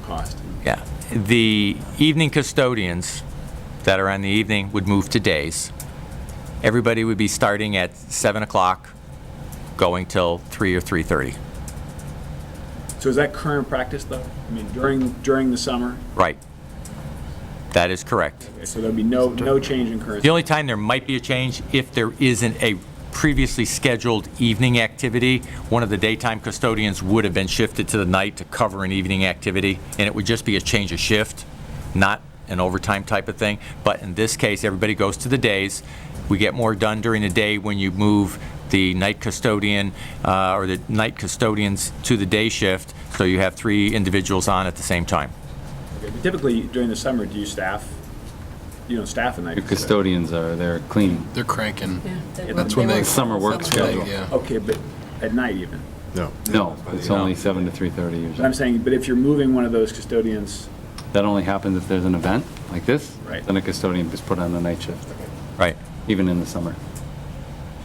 cost. Yeah. The evening custodians that are on the evening would move to days. Everybody would be starting at 7 o'clock, going till 3 or 3:30. So is that current practice though? I mean, during, during the summer? Right. That is correct. Okay, So there'd be no, no change in current? The only time there might be a change, if there isn't a previously scheduled evening activity, one of the daytime custodians would have been shifted to the night to cover an evening activity, and it would just be a change of shift, not an overtime type of thing. But in this case, everybody goes to the days. We get more done during the day when you move the night custodian, uh, or the night custodians to the day shift, so you have three individuals on at the same time. Okay, but Typically, during the summer, do you staff, you don't staff a night? The custodians are there cleaning. They're cranking. That's when when they- they. Summer work schedule. Yeah. Okay, but at night even? No. No, it's only 7 to 3:30 But I'm usually. saying, but if you're moving one of those custodians, That only happens if there's an event like this. Right. Then a custodian is put on the night shift, Right. even in the summer.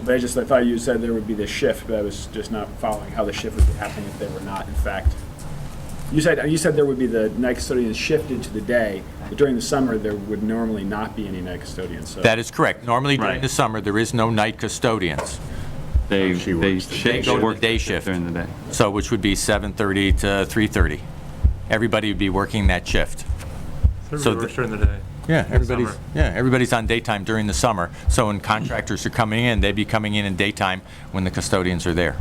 but I just, I thought you said there would be this shift, but I was just not following how the shift would be happening if they were not, in fact. You said, you said there would be the night custodians shifted to the day, but during the summer, there would normally not be any night custodians, so. That is correct. Normally during Right. the summer, there is no night custodians. They, they shift, go to the work day shift. during the day. So, which would be 7:30 to 3:30. Everybody would be working that shift. So Everybody works the- during the day. Yeah, everybody's- everybody's, yeah, everybody's on daytime during the summer. So when contractors are coming in, they'd be coming in in daytime when the custodians are there.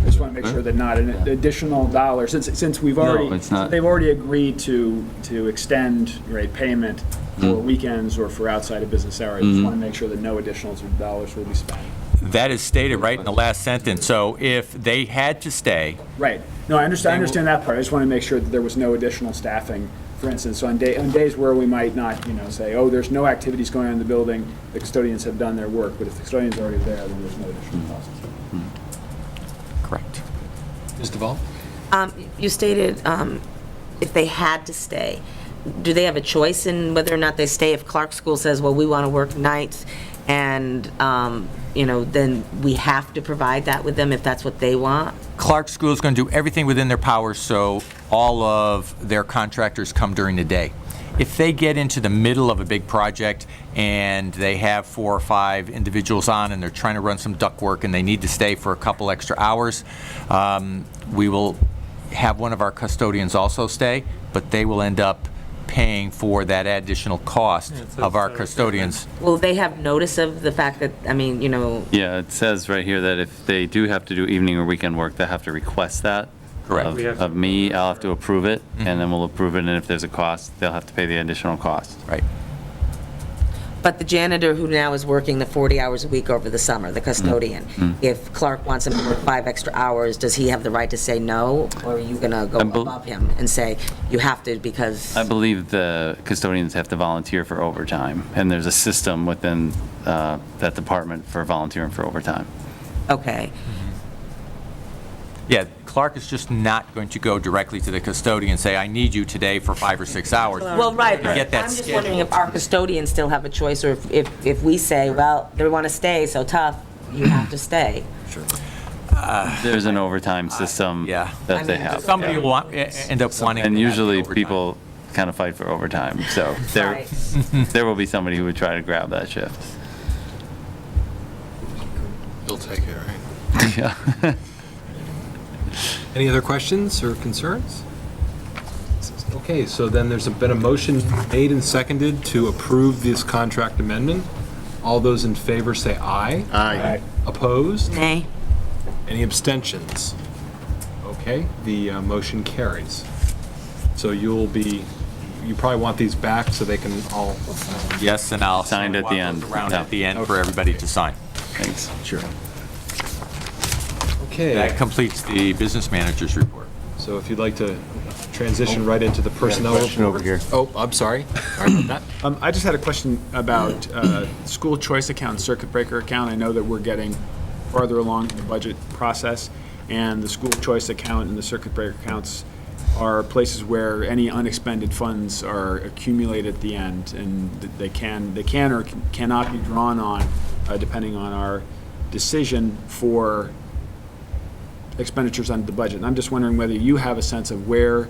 I just want to make sure that not an additional dollar, since, since we've already, it's not. they've already agreed to, to extend, right, payment for Hmm. weekends or for outside of business hours. I just want to make sure that no additional dollars will be spent. That is stated right in the last sentence. So if they had to stay, Right. No, I understand, I understand that part. I just want to make sure that there was no additional staffing. For instance, on day, on days where we might not, you know, say, oh, there's no activities going on in the building, the custodians have done their work, but if the custodian's already there, then there's no additional cost. correct. Ms. DeValle? You stated um, if they had to stay, do they have a choice in whether or not they stay? If Clark School says, well, we want to work nights, and, um, you know, then we have to provide that with them if that's what they want? Clark School is going to do everything within their power so all of their contractors come during the day. If they get into the middle of a big project and they have four or five individuals on and they're trying to run some duct work and they need to stay for a couple extra hours, um, we will have one of our custodians also stay, but they will end up paying for that additional cost it's- of our it's, uh, it's- custodians. Will they have notice of the fact that, I mean, you know, Yeah, it says right here that if they do have to do evening or weekend work, they have to request that. Correct. of- We have to- Of me, I'll have to approve it, and then we'll approve it, and if there's a cost, they'll have to pay the additional cost. Right. But the janitor who now is working the 40 hours a week over the summer, the custodian, if Clark wants him to work five extra hours, does he have the right to say no? Or are you going to go I bel- above him and say, you have to because, I believe the custodians have to volunteer for overtime, and there's a system within uh, that department for volunteering for overtime. okay. Yeah, Clark is just not going to go directly to the custodian and say, I need you today for five or six hours. Well, right, To get but that I'm just wondering if our custodians still have a choice, or if- if, if we say, well, they want to stay, so tough, you have to stay. There's an overtime system yeah. I that they mean, have. Some people yeah. want, e- end up wanting. to have And the usually, overtime. people kind of fight for overtime, so there, Right. there will be somebody who would try to grab that shift. You'll take it, right? Yeah. Any other questions or concerns? Okay, so then there's been a motion made and seconded to approve this contract amendment. All those in favor say aye. Aye. Opposed? Nay. Any abstentions? Okay, the uh, motion carries. So you'll be, you probably want these back so they can all, Yes, and I'll. Signed at the end. Around Yeah. at the end for everybody to sign. Thanks. Sure. That okay. completes the business manager's report. So if you'd like to transition right into the personnel report. question over here. Oh, I'm sorry. Sorry about that. Um, I just had a question about uh, school choice account and circuit breaker account. I know that we're getting farther along in the budget process, and the school choice account and the circuit breaker accounts are places where any unexpended funds are accumulated at the end, and th- they can, they can or cannot be drawn on, uh, depending on our decision for expenditures under the budget. And I'm just wondering whether you have a sense of where